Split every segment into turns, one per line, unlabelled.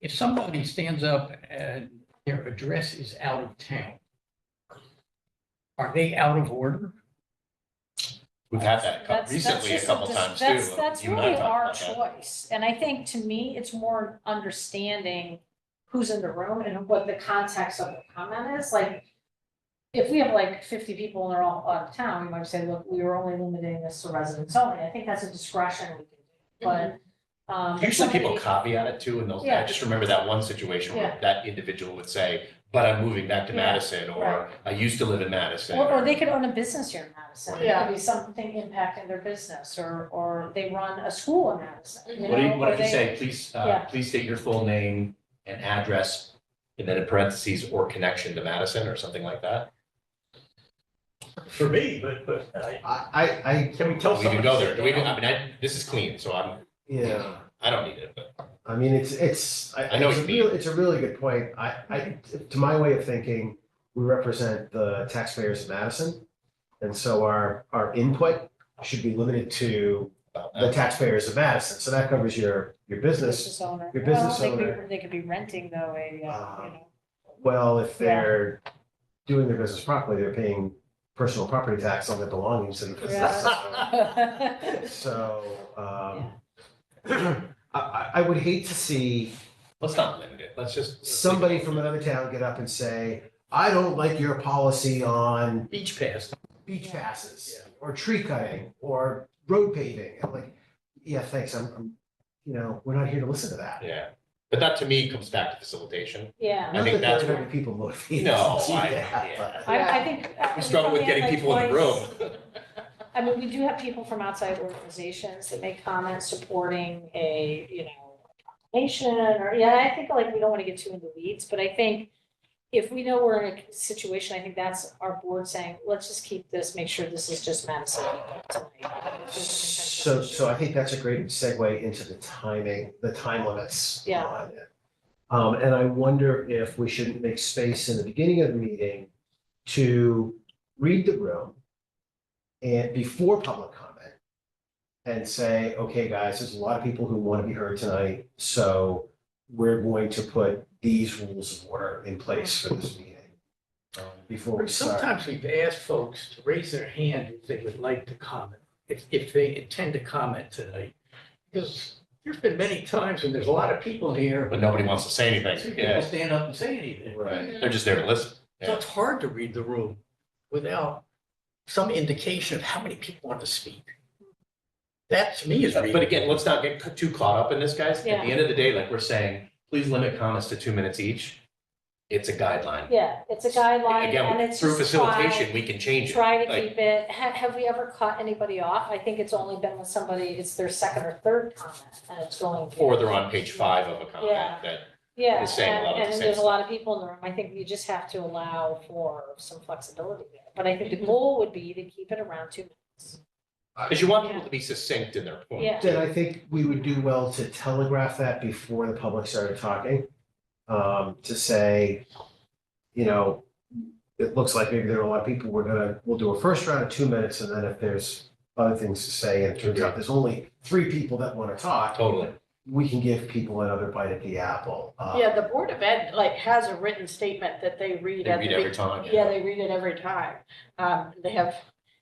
if somebody stands up and their address is out of town, are they out of order?
We've had that
That's-
co-
that's
recently a
just a
couple
dis-
times too.
That's, that's
You and I
really
talked
our
about that.
choice, and I think to me, it's more understanding who's in the room and what the context of the comment is, like. If we have like fifty people and they're all out of town, we might say, look, we were only limiting this to residents only, I think that's a discretion we can do, but, um. if
Usually people
somebody-
caveat it too, and they'll, I
Yeah.
just remember that one situation where
Yeah.
that individual would say, but I'm moving back to
Yeah,
Madison, or
right.
I used to live in Madison.
Or, or they could own a business here in Madison, it
Yeah.
could be something impacting their business, or, or they run a school in Madison, you know?
What do you, what
or
if you
they-
say, please, uh,
Yeah.
please state your full name and address, and then in parentheses, or connection to Madison, or something like that?
for me, but, but I,
I, I, I- can we tell
We
someone?
can
to
go
sit
there, we, can-
down?
I mean, I, this is clean, so I'm,
Yeah,
I don't need it, but.
I mean, it's, it's, I,
I know
it's a
what you
real, it's a really good point. I, I, to my way of thinking, we represent the taxpayers of Madison. And so our, our input should be limited to
about
the
that.
taxpayers of Madison. So that covers your, your business.
Business owner.
your business
Well, they could-
owner.
They could be renting though, a, uh, you
Ah.
know,
Well, if
Yeah.
they're doing their business properly, they're paying personal property tax on their belongings and.
Yeah.
So, um, I, I, I would hate to see
Let's not limit it, let's just. let's leave it
somebody
open.
from another town get up and say, I don't like your policy on
Beach pass.
beach
Yeah.
passes or tree cutting or road paving. I'm like, yeah, thanks. I'm, I'm, you know, we're not here to listen to that.
Yeah, but that to me comes back to facilitation.
yeah.
I
Not
think
that there are
that's
gonna be people motivated
No,
to do
I-
that,
yeah.
but-
I, I think. I
We
think
struggle
we
with
had
getting
like
people in the
twice-
room.
I mean, we do have people from outside organizations that make comments supporting a, you know, nation or, yeah, I think like we don't want to get too into weeds, but I think if we know we're in a situation, I think that's our board saying, let's just keep this, make sure this is just Madison. people tonight."
So, so I think that's a great segue into the timing, the time limits.
Yeah.
on it. Um, and I wonder if we shouldn't make space in the beginning of the meeting to read the room and before public comment and say, okay, guys, there's a lot of people who want to be heard tonight, so we're going to put these rules of order in place for this meeting. um, Before we start.
Sometimes we've asked folks to raise their hand if they would like to comment, if, if they intend to comment tonight. Because there's been many times when there's a lot of people here,
But
but
nobody wants to say
few
anything,
people
yeah,
stand up and say anything.
Right.
they're just there to listen.
So it's hard to read the room without some indication of how many people want to speak. That to me is reading.
But again, let's not get ca- too caught up in this, guys. At the
Yeah.
end of the day, like we're saying, please limit comments to two minutes each. It's a guideline.
Yeah, it's a guideline and
Again,
it's
through
just try,
facilitation, we can change it.
try to
Like-
keep it, have, have we ever caught anybody off? I think it's only been when somebody, it's their second or third comment and it's going.
Or they're on page five of a comment
Yeah.
that,
Yeah,
is saying a lot of
and,
the
and
same
there's a
stuff.
lot of people in the room, I think you just have to allow for some flexibility there. But I think
Mm-hmm.
the goal would be to keep it around two minutes.
because you want people to be succinct in their point.
Yeah.
Then I think we would do well to telegraph that before the public started talking. Um, to say, you know, it looks like maybe there are a lot of people, we're gonna, we'll do a first round of two minutes, and then if there's other things to say, and it turns out there's only three people that wanna talk,
Totally.
we can give people another bite at the apple. Uh,
Yeah, the Board of Ed, like, has a written statement that they
Um,
read
They
at
read
the,
every time.
be- yeah, they read it every time. Um, they have,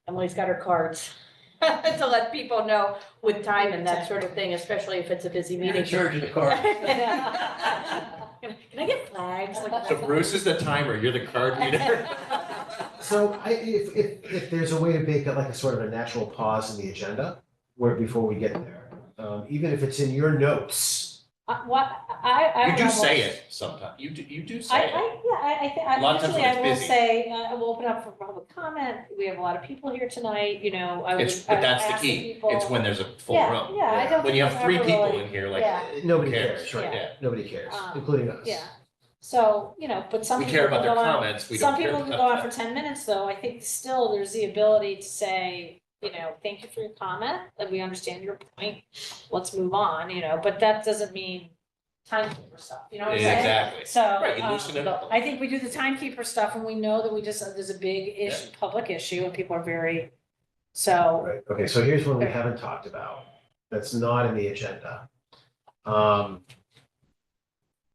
Emily's got her cards to let people know with time and that sort of thing, especially if it's a busy
You're in
meeting.
charge of the car.
Can I get flags? Like-
So Bruce is the timer, you're the card reader.
So I, if, if, if there's a way to make it like a sort of a natural pause in the agenda, where, before we get there, um, even if it's in your notes,
Uh, what, I, I.
You
would
do say
almost-
it sometimes. You do, you do
I,
say it.
I, yeah, I, I think,
A lot of
I
times
usually
when it's
I will
busy.
say, uh, we'll open up for public comment, we have a lot of people here tonight, you know, I would.
It's,
I
but
would
that's the
ask
key.
people-
It's when there's a full
Yeah,
room.
Yeah, I
Yeah.
don't.
When you
think
have
I've
three
ever
people
really-
in here, like,
Yeah.
Uh, nobody
Who cares,
cares, right?
yeah.
Nobody cares,
Um,
including us.
Yeah, so, you know, but some
We
people.
care about
can
their
go on-
comments, we
Some
don't care.
people can
about
go on
that.
for ten minutes, though, I think still there's the ability to say, you know, thank you for your comment, that we understand your point, let's move on, you know, but that doesn't mean timekeeper stuff, you know what I'm saying?
Exactly.
So.
Right, you
um,
loosen it up.
I think we do the timekeeper stuff when we know that we just, uh, there's a big issue, public issue, and people are very, so,
Right, okay, so here's one we haven't talked about, that's not in the agenda. Um,